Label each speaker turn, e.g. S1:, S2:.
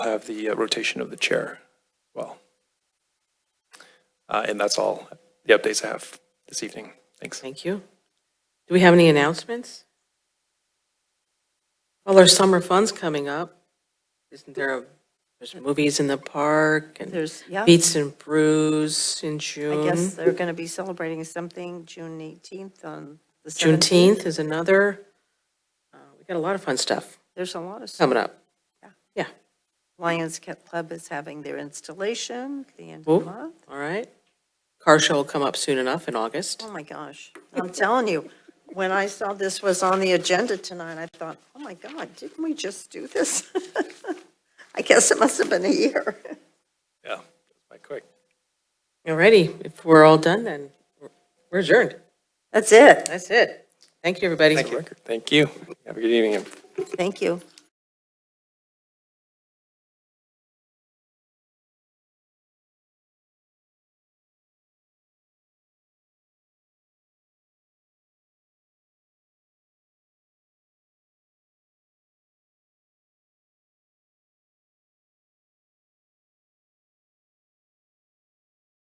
S1: have the uh, rotation of the chair well. Uh, And that's all the updates I have this evening. Thanks.
S2: Thank you. Do we have any announcements? Well, our summer fun's coming up. Isn't there, a there's movies in the park and
S3: There's, yeah, I
S2: Beats and Brews in June.
S3: guess they're going to be celebrating something June 18th on the 17th.
S2: Juneteenth is another. Uh, We got a lot of fun stuff
S3: There's a lot of stuff.
S2: coming up. Yeah,
S3: Lions Cat Club is having their installation at the end
S2: Ooh.
S3: of the month.
S2: all right. Car show will come up soon enough in August.
S3: Oh, my gosh. I'm telling you, when I saw this was on the agenda tonight, I thought, oh, my God, didn't we just do this? I guess it must have been a year.
S1: Yeah, quite quick.
S2: All righty, if we're all done, then we're- we're adjourned.
S3: That's it.
S2: That's it. Thank you, everybody.
S1: Thank you. Thank you. Have a good evening.
S3: Thank you.